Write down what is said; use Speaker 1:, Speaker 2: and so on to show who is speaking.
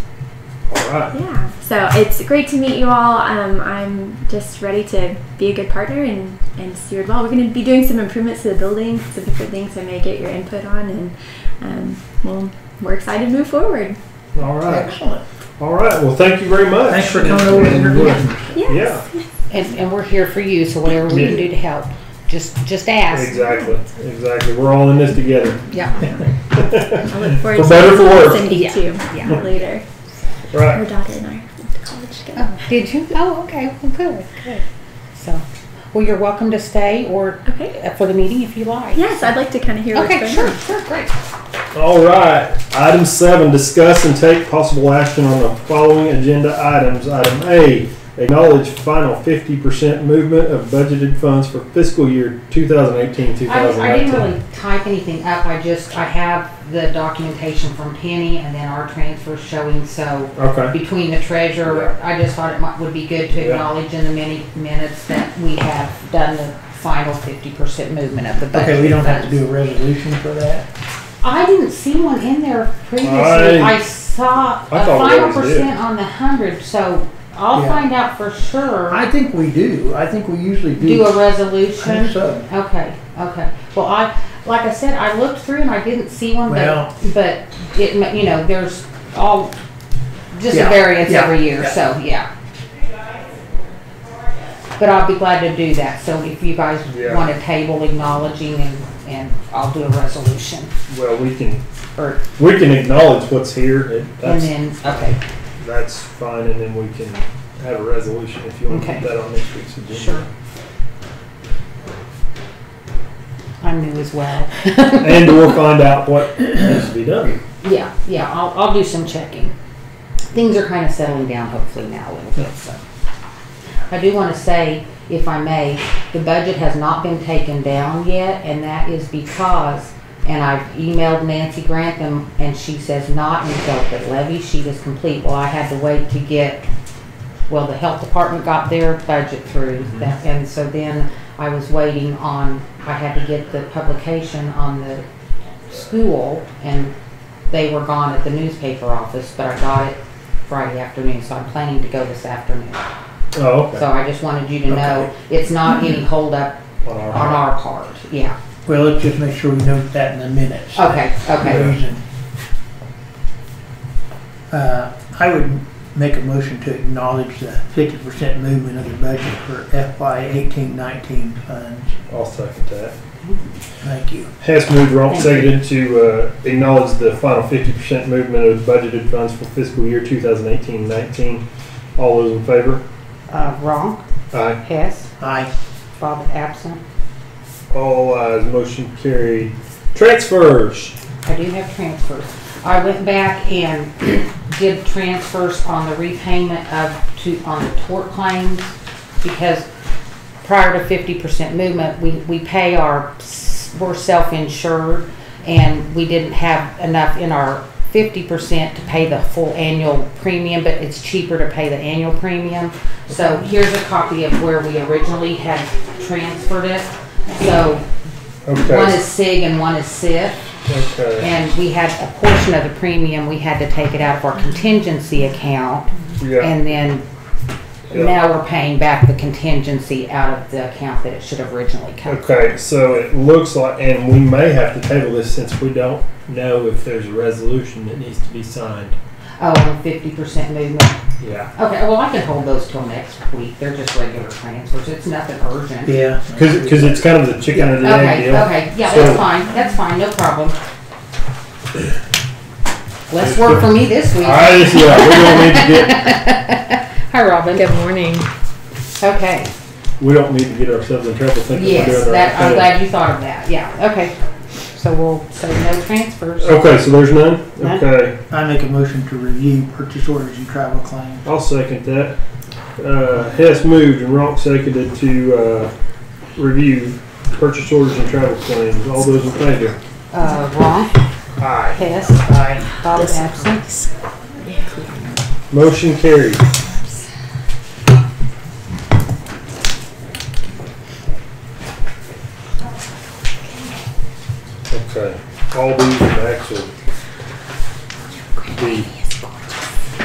Speaker 1: right.
Speaker 2: Yeah. So it's great to meet you all. Um, I'm just ready to be a good partner and, and steward well. We're going to be doing some improvements to the building, some different things I may get your input on, and um, well, we're excited to move forward.
Speaker 1: All right.
Speaker 3: Excellent.
Speaker 1: All right. Well, thank you very much.
Speaker 3: Thanks for coming over to
Speaker 1: And
Speaker 3: interview.
Speaker 1: we'll-
Speaker 2: Yes.
Speaker 1: Yeah,
Speaker 4: And, and we're here for you, so whatever we can do to help, just just ask.
Speaker 1: exactly. Exactly. We're all in this together.
Speaker 4: Yeah.
Speaker 2: I look forward
Speaker 1: For
Speaker 2: to
Speaker 1: better, for worse.
Speaker 2: Cindy
Speaker 4: Yeah.
Speaker 2: too
Speaker 4: Yeah.
Speaker 2: later. Her
Speaker 1: Right.
Speaker 2: daughter and I went to college together.
Speaker 4: Oh, did you? Oh, okay. Well, good. Good. So, well, you're welcome to stay or
Speaker 2: Okay.
Speaker 4: uh, for the meeting if you like.
Speaker 2: Yes, I'd like to kind of hear
Speaker 4: Okay.
Speaker 2: what's going
Speaker 4: Sure.
Speaker 2: on.
Speaker 4: Sure. Great.
Speaker 1: All right. Item seven, discuss and take possible action on the following agenda items. Item A, acknowledge final fifty percent movement of budgeted funds for fiscal year 2018-2019.
Speaker 4: I, I didn't really type anything up. I just I have the documentation from Penny and then our transfer showing. So
Speaker 1: Okay.
Speaker 4: between the treasurer, I just thought it might, would be good to
Speaker 1: Yeah.
Speaker 4: acknowledge in the many minutes that we have done the final fifty percent movement of the budget.
Speaker 3: Okay, we don't have to
Speaker 4: funds.
Speaker 3: do a resolution for that.
Speaker 4: I didn't see one in there previously.
Speaker 1: I-
Speaker 4: I, saw
Speaker 1: I
Speaker 4: a
Speaker 1: thought we
Speaker 4: final
Speaker 1: always did.
Speaker 4: percent on the hundred, so I'll
Speaker 3: Yeah.
Speaker 4: find out for sure.
Speaker 3: I think we do. I think we usually do.
Speaker 4: do a
Speaker 3: I think
Speaker 4: resolution.
Speaker 3: so.
Speaker 4: Okay, okay. Well, I like I said, I looked through and I didn't see one,
Speaker 3: Well-
Speaker 4: but but it ma- you know there's all just
Speaker 3: Yeah,
Speaker 4: a variance
Speaker 3: yeah,
Speaker 4: every year,
Speaker 3: yeah.
Speaker 4: so yeah. But I'll be glad to do that. So if you guys
Speaker 1: Yeah.
Speaker 4: want a table acknowledging and and I'll do a resolution
Speaker 1: Well, we can,
Speaker 4: or
Speaker 1: we can acknowledge what's here. It-
Speaker 4: and
Speaker 1: That's,
Speaker 4: then okay.
Speaker 1: that's fine. And then we can have a resolution if you want to put
Speaker 4: Okay.
Speaker 1: that on next week's agenda.
Speaker 4: Sure. I'm new as well.
Speaker 1: And we'll find out what needs to be done.
Speaker 4: yeah, yeah, I'll, I'll do some checking. Things are kind of settling down hopefully now a little bit, so. I do want to say, if I may, the budget has not been taken down yet, and that is because, and I've emailed Nancy Grantham, and she says not until the levy sheet is complete. Well, I had to wait to get, well, the health department got their budget through, that- and so then I was waiting on, I had to get the publication on the school, and they were gone at the newspaper office, but I got it Friday afternoon, so I'm planning to go this afternoon.
Speaker 1: Oh, okay.
Speaker 4: So I just wanted you to know, it's not any holdup
Speaker 1: On our-
Speaker 4: on our part, yeah.
Speaker 3: Well, let's just make sure we note that in the minutes.
Speaker 4: Okay,
Speaker 3: The
Speaker 4: okay.
Speaker 3: reason. Uh, I would make a motion to acknowledge the fifty percent movement of the budget for FY eighteen nineteen funds.
Speaker 1: I'll second that.
Speaker 3: Thank you.
Speaker 1: Hess moved, Ronk
Speaker 4: Thank
Speaker 1: seconded to uh, acknowledge the final 50% movement of budgeted funds for fiscal year 2018-19. All those in favor?
Speaker 4: Uh, Ronk,
Speaker 1: Aye.
Speaker 4: Hess,
Speaker 3: Aye.
Speaker 4: Bob absent.
Speaker 1: All ayes, motion carried. Transfers.
Speaker 4: I do have transfers. I went back and did transfers on the repayment of, to, on the tort claims, because prior to fifty percent movement, we, we pay our, we're self-insured, and we didn't have enough in our fifty percent to pay the full annual premium, but it's cheaper to pay the annual premium. So here's a copy of where we originally had transferred it. So one
Speaker 1: Okay.
Speaker 4: is SIG and one is SIF.
Speaker 1: Okay.
Speaker 4: And we had a portion of the premium, we had to take it out of our contingency account.
Speaker 1: Yeah.
Speaker 4: And then
Speaker 1: Yeah.
Speaker 4: now we're paying back the contingency out of the account that it should have originally come.
Speaker 1: Okay, so it looks like, and we may have to table this since we don't know if there's a resolution that needs to be signed.
Speaker 4: Oh, fifty percent movement.
Speaker 1: Yeah.
Speaker 4: Okay, well, I can hold those till next week. They're just regular transfers. It's nothing urgent.
Speaker 3: Yeah.
Speaker 1: Because it's kind of the chicken and the egg
Speaker 4: Okay,
Speaker 1: deal.
Speaker 4: okay, yeah,
Speaker 1: So-
Speaker 4: that's fine, that's fine, no problem. Less work for me this week.
Speaker 1: All right, yeah, we don't need to get,
Speaker 4: Hi, Robin.
Speaker 5: Good morning.
Speaker 4: Okay.
Speaker 1: we don't need to get ourselves in trouble thinking we're doing
Speaker 4: Yes,
Speaker 1: the
Speaker 4: that,
Speaker 1: right
Speaker 4: I'm
Speaker 1: thing.
Speaker 4: glad you thought of that, yeah, okay. So we'll say no transfers.
Speaker 1: Okay, so there's none?
Speaker 4: None.
Speaker 1: Okay,
Speaker 3: I make a motion to review purchase orders and travel claims.
Speaker 1: I'll second that. Uh, Hess moved and Ronk seconded to, uh, review purchase orders and travel claims. All those in favor?
Speaker 4: Uh, Ron,
Speaker 1: Aye.
Speaker 4: Hess, Bob absent.
Speaker 1: Motion carried.